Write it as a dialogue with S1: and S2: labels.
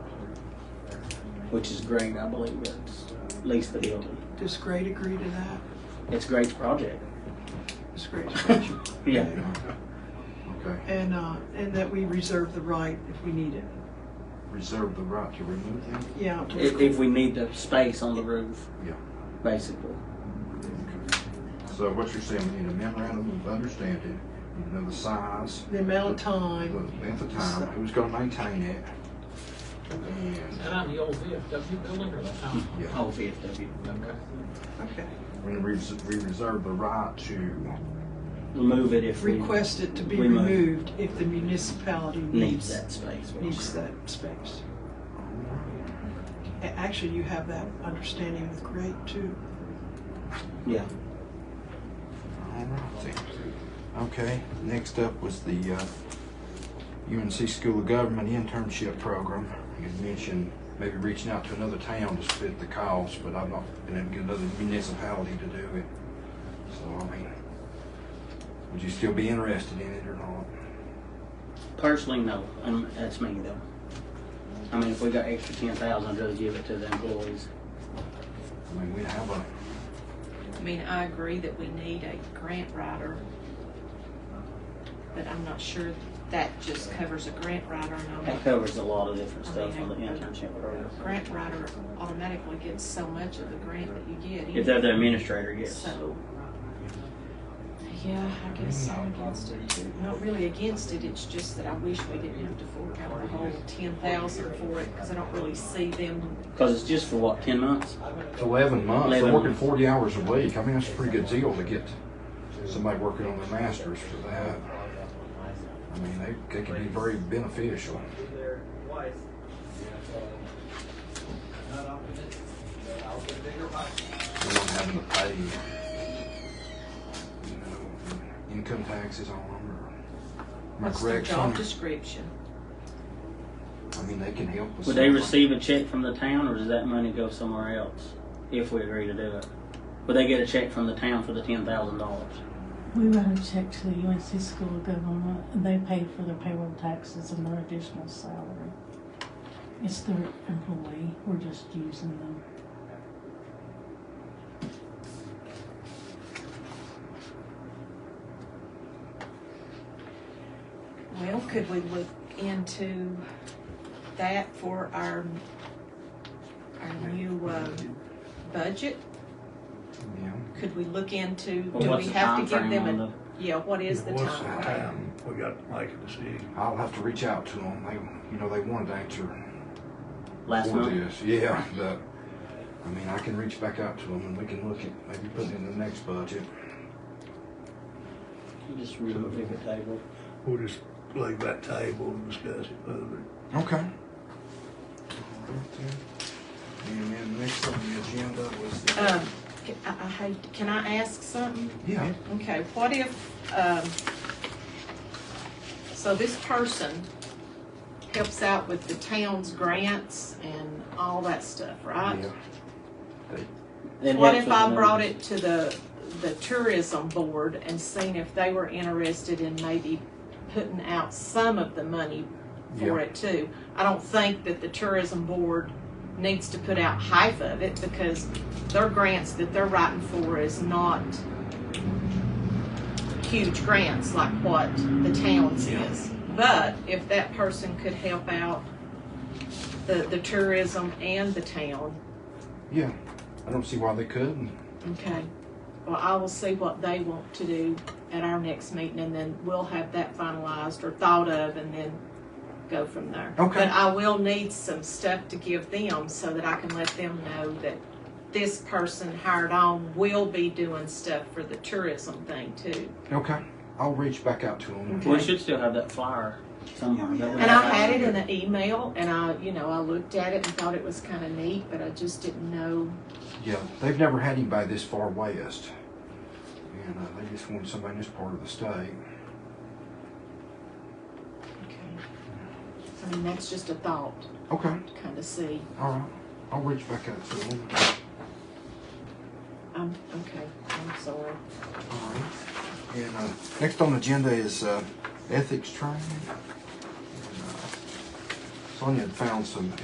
S1: which is great. I believe it's at least the building.
S2: Does Great agree to that?
S1: It's Great's project.
S2: Does Great support you?
S1: Yeah.
S3: Okay,
S2: And, uh, and that we reserve the right if we need it.
S3: reserve the right to remove them?
S2: Yeah.
S1: If, if we need the space on the roof,
S3: Yeah.
S1: basically.
S3: So what you're saying, we need a memorandum of understanding, you know, the size,
S2: The amount of
S3: the
S2: time.
S3: length of time, who's gonna maintain it. And
S4: Out of the old VFW building or the house?
S3: Yeah,
S1: Oh, VFW.
S4: Okay.
S2: Okay.
S3: we res- we reserve the right to,
S1: Remove it if we
S2: Request it to be
S1: We move.
S2: removed if the municipality
S1: needs
S2: needs,
S1: that space.
S2: needs that space. A- Actually, you have that understanding with Great too.
S1: Yeah.
S3: Alright. Okay, next up was the uh, UNC School of Government internship program. You had mentioned maybe reaching out to another town to split the cost, but I've not been able to get another municipality to do it. So, I mean, would you still be interested in it or not?
S1: Personally, no. Um, that's me though. I mean, if we got extra ten thousand, just give it to the employees.
S3: I mean, we have a,
S5: I mean, I agree that we need a grant writer, but I'm not sure that just covers a grant writer and
S1: That
S5: I'm,
S1: covers a lot of different stuff on the internship program.
S5: grant writer automatically gets so much of the grant that you get.
S1: If they're the administrator, yes.
S5: So, yeah, I guess I'm against it too. Not really against it, it's just that I wish we didn't have to fork out the whole ten thousand for it, cause I don't really see them.
S1: Because it's just for what, ten months?
S3: it's eleven months, they're
S1: 11
S3: working
S1: months.
S3: forty hours a week. I mean, that's a pretty good deal to get somebody working on their masters for that. I mean, they, they can be very beneficial. We're not having to pay, you know, income taxes on them or. am I
S5: What's their
S3: correct,
S5: job
S3: Sonia?
S5: description?
S3: I mean, they can help with.
S1: Would they
S3: something.
S1: receive a check from the town or does that money go somewhere else if we agree to do it? Would they get a check from the town for the ten thousand dollars?
S6: We wrote a check to the UNC School of Government, and they paid for their payroll taxes and their additional salary. It's their employee, we're just using them.
S5: Well, could we look into that for our, our new, um, budget?
S3: Yeah.
S5: Could we look into,
S1: Or
S5: do
S1: what's
S5: we
S1: the
S5: have to give
S1: timeframe on
S5: them a, yeah, what is the
S7: What's the
S5: time?
S7: time? Um, We got to make a decision.
S3: I'll have to reach out to them. They, you know, they wanted to answer
S1: the Last
S3: for
S1: month?
S3: this. Yeah, but I mean, I can reach back out to them and we can look at maybe putting it in the next budget.
S1: Just remove it from the table.
S7: We'll just leave that table and discuss it further.
S3: Okay. And then next on the agenda was the.
S5: Um, ca- I, I hate, can I ask something?
S3: Yeah.
S5: Okay, what if, um, so this person helps out with the town's grants and all that stuff, right?
S3: yeah.
S1: It
S5: What
S1: helps
S5: if
S1: with
S5: I
S1: the
S5: brought
S1: numbers.
S5: it to the, the tourism board and seen if they were interested in maybe putting out some of the money
S3: Yeah.
S5: for it too? I don't think that the tourism board needs to put out half of it because their grants that they're writing for is not huge grants like what the town's is. But if that person could help out the, the tourism and the town,
S3: Yeah. I don't see why they couldn't.
S5: Okay, well, I will see what they want to do at our next meeting, and then we'll have that finalized or thought of, and then go from there.
S3: Okay.
S5: But I will need some stuff to give them, so that I can let them know that this person hired on will be doing stuff for the tourism thing too.
S3: Okay. I'll reach back out to them.
S1: We should still have that flyer somewhere. that we
S5: And I
S1: have.
S5: had it in an email, and I, you know, I looked at it and thought it was kinda neat, but I just didn't know.
S3: Yeah, they've never had anybody this far west. And uh, they just wanted somebody in this part of the state.
S5: Okay. I mean, that's just a thought,
S3: Okay.
S5: to kinda see.
S3: All right. I'll reach back out to them.
S5: Um, okay, I'm sorry.
S3: Alright. And uh, next on the agenda is uh, ethics training. And, uh, Sonia had found some